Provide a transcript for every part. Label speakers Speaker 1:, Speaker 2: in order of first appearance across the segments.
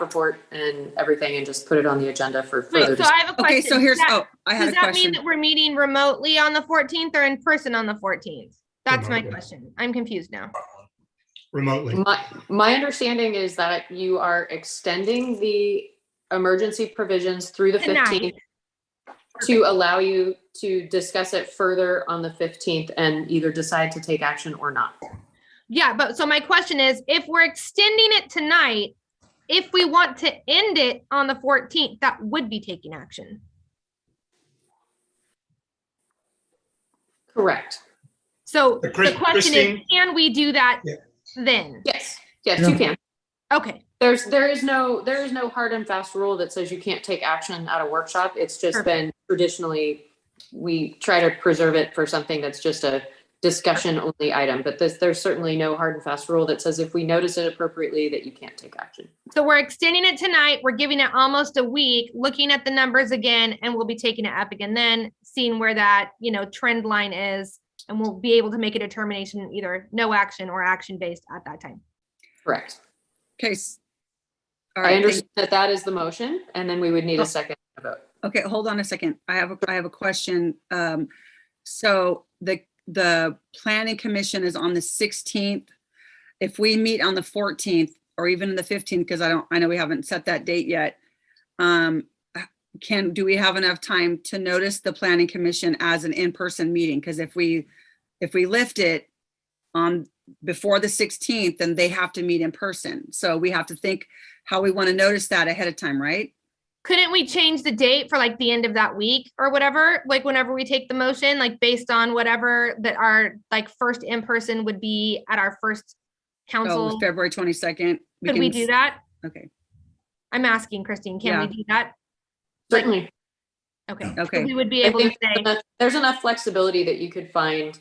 Speaker 1: report and everything and just put it on the agenda for further.
Speaker 2: Wait, so
Speaker 1: dis-
Speaker 2: I have a question.
Speaker 3: Okay, so
Speaker 2: Does
Speaker 3: here's,
Speaker 2: that-
Speaker 3: oh, I had
Speaker 2: Does
Speaker 3: a
Speaker 2: that mean
Speaker 3: question.
Speaker 2: that we're meeting remotely on the fourteenth or in person on the fourteenth? That's my
Speaker 4: Remotely.
Speaker 2: question. I'm confused now.
Speaker 4: remotely.
Speaker 5: Mm.
Speaker 1: My, my understanding is that you are extending the emergency provisions through the
Speaker 2: Tonight.
Speaker 1: fifteenth to allow you to discuss it further on the fifteenth and either decide to take action or not.
Speaker 2: Yeah, but so my question is, if we're extending it tonight, if we want to end it on the fourteenth, that would be taking action.
Speaker 1: Correct.
Speaker 2: So
Speaker 4: Uh,
Speaker 2: the
Speaker 4: Chris-
Speaker 2: question is,
Speaker 4: Christine?
Speaker 2: can we do that
Speaker 4: Yeah.
Speaker 2: then?
Speaker 1: Yes, yes, you
Speaker 4: Yeah.
Speaker 1: can.
Speaker 2: Okay,
Speaker 1: There's, there is no, there is no hard and fast rule that says you can't take action at a workshop. It's just
Speaker 2: Perfect.
Speaker 1: been traditionally, we try to preserve it for something that's just a discussion only item, but there's, there's certainly no hard and fast rule that says if we notice it appropriately that you can't take action.
Speaker 2: so we're extending it tonight. We're giving it almost a week, looking at the numbers again, and we'll be taking it up again then, seeing where that, you know, trend line is. And we'll be able to make a determination, either no action or action based at that time.
Speaker 1: Correct.
Speaker 3: Okay. s- All
Speaker 1: I
Speaker 3: right, thank- Oh.
Speaker 1: understand that that is the motion, and then we would need a second vote.
Speaker 3: okay, hold on a second. I have, a I have a question. Um, So the, the planning commission is on the 16th. If we meet on the 14th or even the 15th, because I don't, I know we haven't set that date yet. um, Can, do we have enough time to notice the planning commission as an in-person meeting? Because if we, if we lift it on, before the 16th, then they have to meet in person. So we have to think how we want to notice that ahead of time, right?
Speaker 2: couldn't we change the date for like the end of that week or whatever like whenever we take the motion like based on whatever that our like first in person would be at our first
Speaker 3: Oh,
Speaker 2: council
Speaker 3: February twenty-second.
Speaker 2: could we do that
Speaker 3: Okay,
Speaker 2: i'm asking christine can we do that Like-
Speaker 1: Certainly.
Speaker 2: okay So
Speaker 3: okay,
Speaker 2: we would be
Speaker 1: I
Speaker 2: able to
Speaker 1: think
Speaker 2: say
Speaker 1: enough- there's enough flexibility that you could find.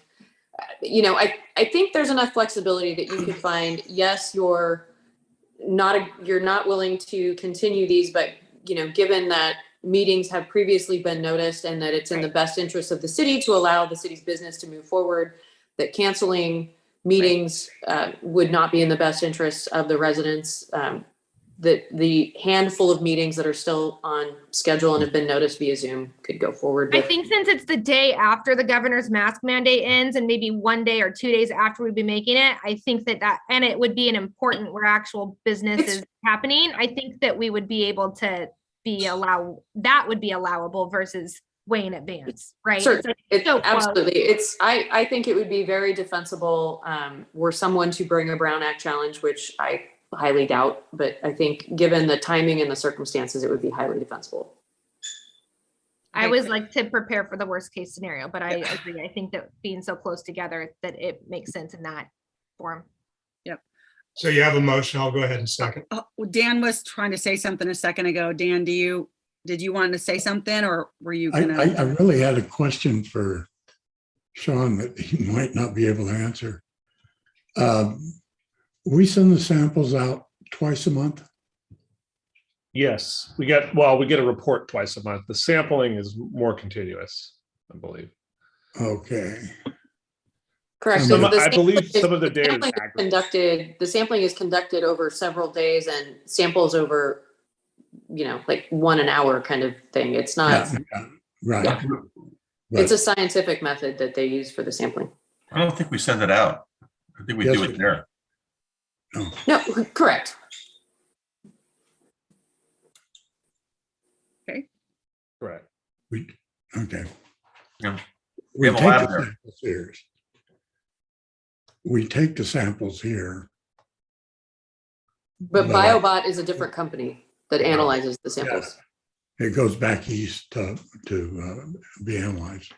Speaker 1: uh, You know, I, I think there's enough flexibility that you could find, yes, you're not, a- you're not willing to continue these, but, you know, given that meetings have previously been noticed and that it's in the best interest of the city to allow the city's business to move forward, that canceling meetings uh, would not be in the best interest of the residents. um, That the handful of meetings that are still on schedule and have been noticed via Zoom could go forward
Speaker 2: i
Speaker 1: with.
Speaker 2: think since it's the day after the governor's mask mandate ends and maybe one day or two days after we'd be making it i think that that and it would be an important where actual business
Speaker 1: It's-
Speaker 2: is happening i think that we would be able to be allow that would be allowable versus way in advance right It's
Speaker 1: Certainly.
Speaker 2: like,
Speaker 1: It,
Speaker 2: So close.
Speaker 1: absolutely. It's, I, I think it would be very defensible, um, were someone to bring a Brown Act challenge, which I highly doubt, but I think given the timing and the circumstances, it would be highly defensible.
Speaker 2: i
Speaker 3: Okay.
Speaker 2: always like to prepare for the worst case scenario but i agree i think that being so close together that it makes sense in that form
Speaker 4: So you have a motion. I'll go ahead and second.
Speaker 3: Uh, well, Dan was trying to say something a second ago. Dan, do you, did you want to say something or were you
Speaker 6: I, I, I
Speaker 3: gonna?
Speaker 6: really had a question for Sean that he might not be able to answer. Um, We send the samples out twice a month.
Speaker 7: Yes, we get, well, we get a report twice a month. The sampling is more continuous, I believe.
Speaker 6: Okay,
Speaker 1: Correct.
Speaker 6: So
Speaker 1: The
Speaker 6: my-
Speaker 7: I believe
Speaker 1: sampling is-
Speaker 7: some of the data is
Speaker 1: sampling is
Speaker 7: aggregate.
Speaker 1: Conducted, the sampling is conducted over several days and samples over, you know, like one an hour kind of thing. It's not,
Speaker 6: Yeah, yeah, right.
Speaker 1: it's a scientific method that they use for the sampling.
Speaker 8: I don't think we send it out. I think we
Speaker 6: Yes,
Speaker 8: do
Speaker 6: we-
Speaker 8: it there.
Speaker 1: No, correct.
Speaker 7: Correct.
Speaker 6: But, Okay.
Speaker 8: Yeah.
Speaker 6: We
Speaker 8: have a
Speaker 6: take the
Speaker 8: lab there.
Speaker 6: samples here. We take the samples here.
Speaker 1: But
Speaker 6: But, uh,
Speaker 1: BioBot is a different company that analyzes the samples.
Speaker 6: It goes back east to, to uh, be analyzed,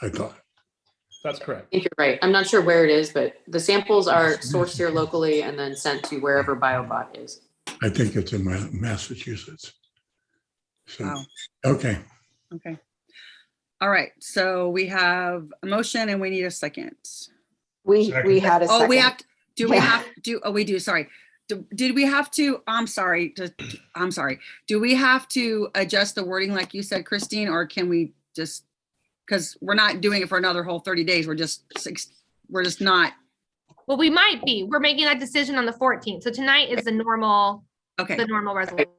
Speaker 6: I thought.
Speaker 7: That's correct.
Speaker 1: I think you're right. I'm not sure where it is, but the samples are sourced here locally and then sent to wherever BioBot is.
Speaker 6: I think it's in Ma- Massachusetts. So,
Speaker 3: Wow,
Speaker 6: okay,
Speaker 3: okay. All right, so we have a motion and we need a second.
Speaker 5: We,
Speaker 4: Second.
Speaker 5: we had a
Speaker 3: Oh, we have,
Speaker 5: second.
Speaker 3: to do we
Speaker 5: Yeah.
Speaker 3: have, do, oh, we do, sorry. Do- Did we have to, I'm sorry, to- I'm sorry. Do we have to adjust the wording like you said, Christine, or can we just? Because we're not doing it for another whole thirty days. We're just six, we're just not,
Speaker 2: well we might be we're making that decision on the 14th so tonight is the normal
Speaker 3: Okay.
Speaker 2: the normal resolution.